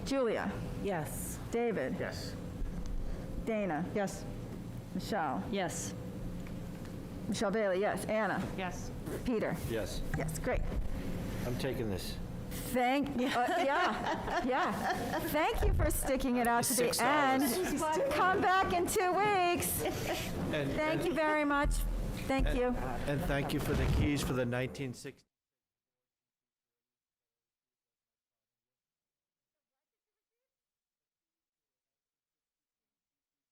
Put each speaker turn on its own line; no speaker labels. Julia,
Yes.
David,
Yes.
Dana,
Yes.
Michelle,
Yes.
Michelle Bailey, yes, Anna,
Yes.
Peter,
Yes.
yes, great.
I'm taking this.
Thank, uh, yeah, yeah. Thank you for sticking it out to
Six
the end. Come back in two weeks.
And-
Thank you very much. Thank you.
And thank you for the keys for the 1960.